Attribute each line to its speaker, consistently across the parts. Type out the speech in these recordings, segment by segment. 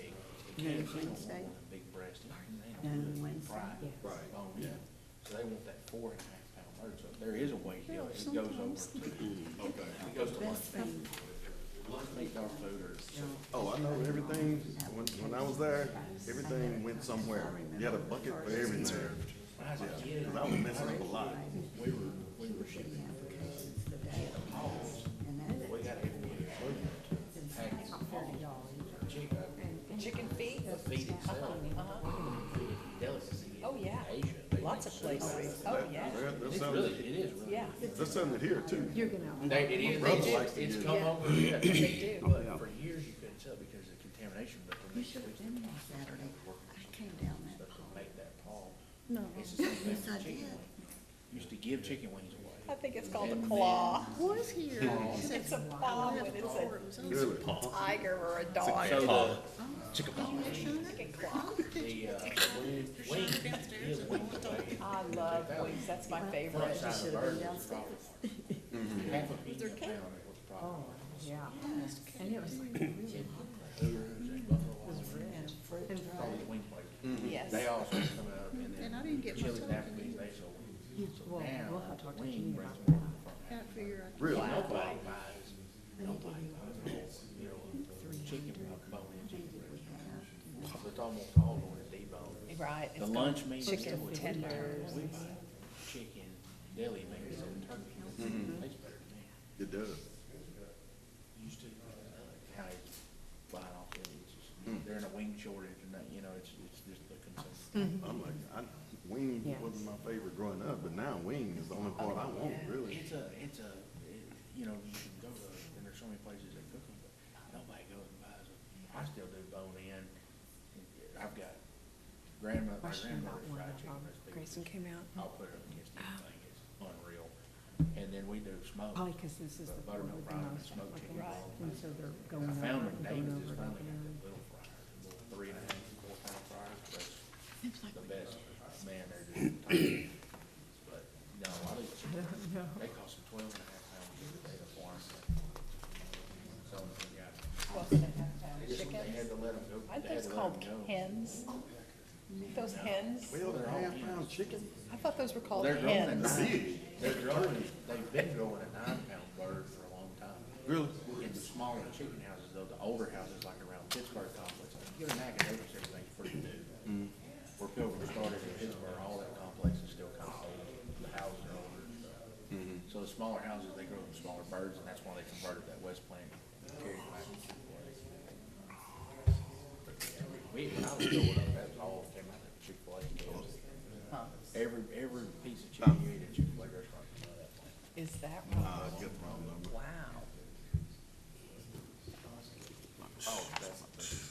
Speaker 1: No,
Speaker 2: Cats, they don't want
Speaker 1: Wednesday.
Speaker 2: one of them big breasted, they
Speaker 1: No,
Speaker 2: don't want it
Speaker 1: Wednesday,
Speaker 2: fried,
Speaker 1: yeah.
Speaker 3: Right.
Speaker 2: bone in. So they want that four and a half pound bird, so there is a way here, it goes over
Speaker 1: sometimes.
Speaker 2: to,
Speaker 3: Mm, Okay.
Speaker 2: it goes to lunch.
Speaker 1: Best thing.
Speaker 2: Lunch meat, dog food or something.
Speaker 3: Oh, I know, everything, when, when I was there, everything went somewhere. You had a bucket for everything.
Speaker 2: When I was a
Speaker 3: Yeah,
Speaker 2: kid,
Speaker 3: 'cause I was messing up a lot.
Speaker 2: we were, we were shipping,
Speaker 1: Applications the day of,
Speaker 2: hogs.
Speaker 1: and that's
Speaker 2: we got every package of
Speaker 1: thirty
Speaker 2: hogs,
Speaker 1: dollars.
Speaker 2: chicken,
Speaker 4: Chicken feet?
Speaker 2: the feed itself, delicacy
Speaker 4: Oh,
Speaker 2: in
Speaker 4: yeah.
Speaker 2: Asia. They
Speaker 4: Lots
Speaker 2: make
Speaker 4: of
Speaker 2: soup out
Speaker 4: places.
Speaker 2: it.
Speaker 4: Oh,
Speaker 3: That-
Speaker 4: yeah.
Speaker 3: that- There's
Speaker 2: It's really,
Speaker 3: something,
Speaker 2: it is really.
Speaker 4: Yeah,
Speaker 3: there's something here too.
Speaker 1: You're gonna,
Speaker 2: They, it is,
Speaker 3: Brother
Speaker 2: they
Speaker 3: likes to
Speaker 2: do, it's
Speaker 3: do
Speaker 2: come
Speaker 4: it.
Speaker 2: over, yeah, they do,
Speaker 1: Oh,
Speaker 2: but for years you couldn't tell because of contamination, but the
Speaker 1: you
Speaker 2: next
Speaker 1: should
Speaker 2: week
Speaker 1: have been there Saturday. I came down
Speaker 2: they
Speaker 1: that
Speaker 2: could
Speaker 1: hall.
Speaker 2: make that pall.
Speaker 1: No.
Speaker 2: It's the same thing
Speaker 1: Yes, I
Speaker 2: with chicken
Speaker 1: did.
Speaker 2: wings. Used to give chicken wings
Speaker 4: I
Speaker 2: away.
Speaker 4: think it's called
Speaker 2: And then-
Speaker 4: a claw.
Speaker 5: was here.
Speaker 4: It's a claw when it's a
Speaker 3: Really.
Speaker 4: tiger or a dog.
Speaker 2: So the,
Speaker 4: Chicken claw.
Speaker 2: the, uh, wing- wings, you give wings away.
Speaker 4: I love wings, that's my
Speaker 2: Front side
Speaker 4: favorite.
Speaker 2: of the
Speaker 1: should have
Speaker 2: bird
Speaker 1: been
Speaker 2: was the problem. Half a piece of pound was the problem.
Speaker 1: Oh.
Speaker 4: Yeah.
Speaker 5: And it was like really
Speaker 1: And fruit.
Speaker 5: and
Speaker 2: All
Speaker 5: dry.
Speaker 2: the wing plates.
Speaker 4: Yes.
Speaker 2: They all started coming up and then.
Speaker 6: And I didn't get my
Speaker 2: Chili's and
Speaker 6: turkey.
Speaker 2: Applebee's, they sold wings.
Speaker 5: You- Well,
Speaker 2: Now,
Speaker 5: we'll have to talk to
Speaker 2: wing
Speaker 5: Junior
Speaker 2: brings
Speaker 5: about that.
Speaker 2: more from Africa.
Speaker 6: Can't figure out.
Speaker 3: Really?
Speaker 2: Nobody buys, nobody buys a whole, you know, chicken with a bone in chicken breast. So It's almost all on a debone.
Speaker 4: Right.
Speaker 2: The lunch meat. is
Speaker 4: Chicken
Speaker 2: what we buy.
Speaker 4: tenders.
Speaker 2: We buy chicken, deli meat, and turkey.
Speaker 5: Mm-hmm.
Speaker 2: Tastes better than that.
Speaker 3: It does.
Speaker 2: Used to, uh, how they buy it off, the- it's just- they're in a wing shortage and that, you know, it's, it's just the
Speaker 5: Mm-hmm.
Speaker 2: consumption.
Speaker 3: I'm like, I, wing
Speaker 5: Yeah.
Speaker 3: wasn't my favorite growing up, but now wing is the only part I want, really.
Speaker 2: It's a, it's a, it- you know, you can go to, and there's so many places that cook them, but nobody goes and buys them. I still do bone in. I've got grandma, my
Speaker 5: Question about
Speaker 2: grandmother's
Speaker 5: one
Speaker 2: fried
Speaker 5: of
Speaker 2: chicken
Speaker 5: um, Grayson
Speaker 2: recipe.
Speaker 5: came out.
Speaker 2: I'll put it up against
Speaker 5: Oh.
Speaker 2: anything, it's unreal. And then we do smoke.
Speaker 5: Probably because this is the
Speaker 2: But
Speaker 5: one
Speaker 2: buttermilk
Speaker 5: with the
Speaker 2: fry and
Speaker 5: most
Speaker 2: smoked chicken.
Speaker 5: applicants, and so they're going
Speaker 2: I found
Speaker 5: over and
Speaker 2: them,
Speaker 5: going
Speaker 2: David's
Speaker 5: over
Speaker 2: has
Speaker 5: and over.
Speaker 2: finally got that little fryer, the little three and a half, four pound fryer, that's the best man there did. But, no, I do they cost them twelve and a half pounds a day to farm. So, yeah, they had to let them go.
Speaker 4: I
Speaker 2: they
Speaker 4: think
Speaker 2: had
Speaker 4: it's
Speaker 2: to let
Speaker 4: called
Speaker 2: 'em go.
Speaker 4: hens. Those hens?
Speaker 3: Twelve and a half pound chicken?
Speaker 4: I thought those were called
Speaker 2: They're grown at
Speaker 4: hens.
Speaker 2: nine, they're growing, they've been growing a nine pound bird for a long time.
Speaker 3: Really?
Speaker 2: in the smaller chicken houses, though, the older houses like around Pittsburgh complex, like, you get an Agadovis, everything's pretty new. Where Pilgrim started in Pittsburgh, all that complex is still kind of old, the houses are older and stuff. So the smaller houses, they grow the smaller birds, and that's why they converted that west plant. carried back to Chick-fil-A. But, yeah, We, when I was growing up, that was all came out of Chick-fil-A. cans. Every, every piece of chicken you ate at Chick-fil-A restaurant came out of that plant.
Speaker 4: Is that
Speaker 3: I
Speaker 4: right?
Speaker 3: get the wrong number.
Speaker 4: Wow.
Speaker 2: Oh, that's.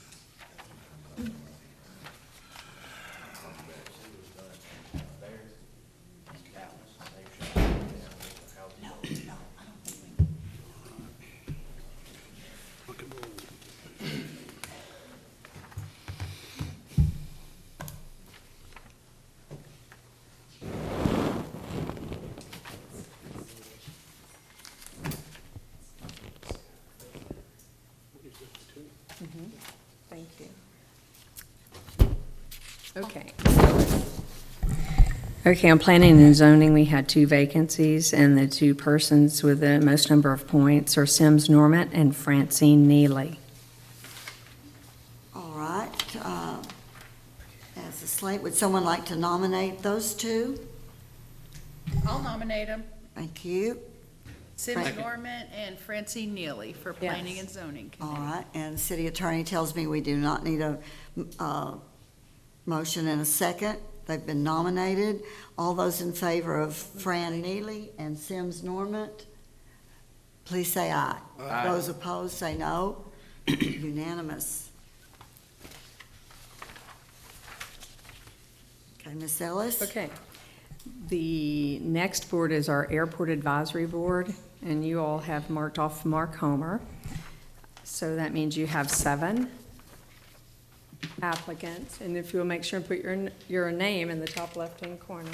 Speaker 5: Thank you. Okay.
Speaker 7: Okay, on planning and zoning, we had two vacancies, and the two persons with the most number of points are Sims Normant and Francine Neely.
Speaker 1: All right, uh, as a slate, would someone like to nominate those two?
Speaker 6: I'll nominate them,
Speaker 1: Thank you.
Speaker 6: Sims Norman and Francine Neely for Planning
Speaker 7: Yes.
Speaker 6: and Zoning
Speaker 1: All
Speaker 6: Committee.
Speaker 1: right, and the city attorney tells me we do not need a, uh motion and a second. They've been nominated. All those in favor of Fran Neely and Sims Normant, please say aye. Those opposed, say no. Unanimous. Okay, Ms. Ellis?
Speaker 7: Okay. The next board is our Airport Advisory Board, and you all have marked off Mark Homer. So that means you have seven applicants, and if you'll make sure and put your, your name in the top left-hand corner.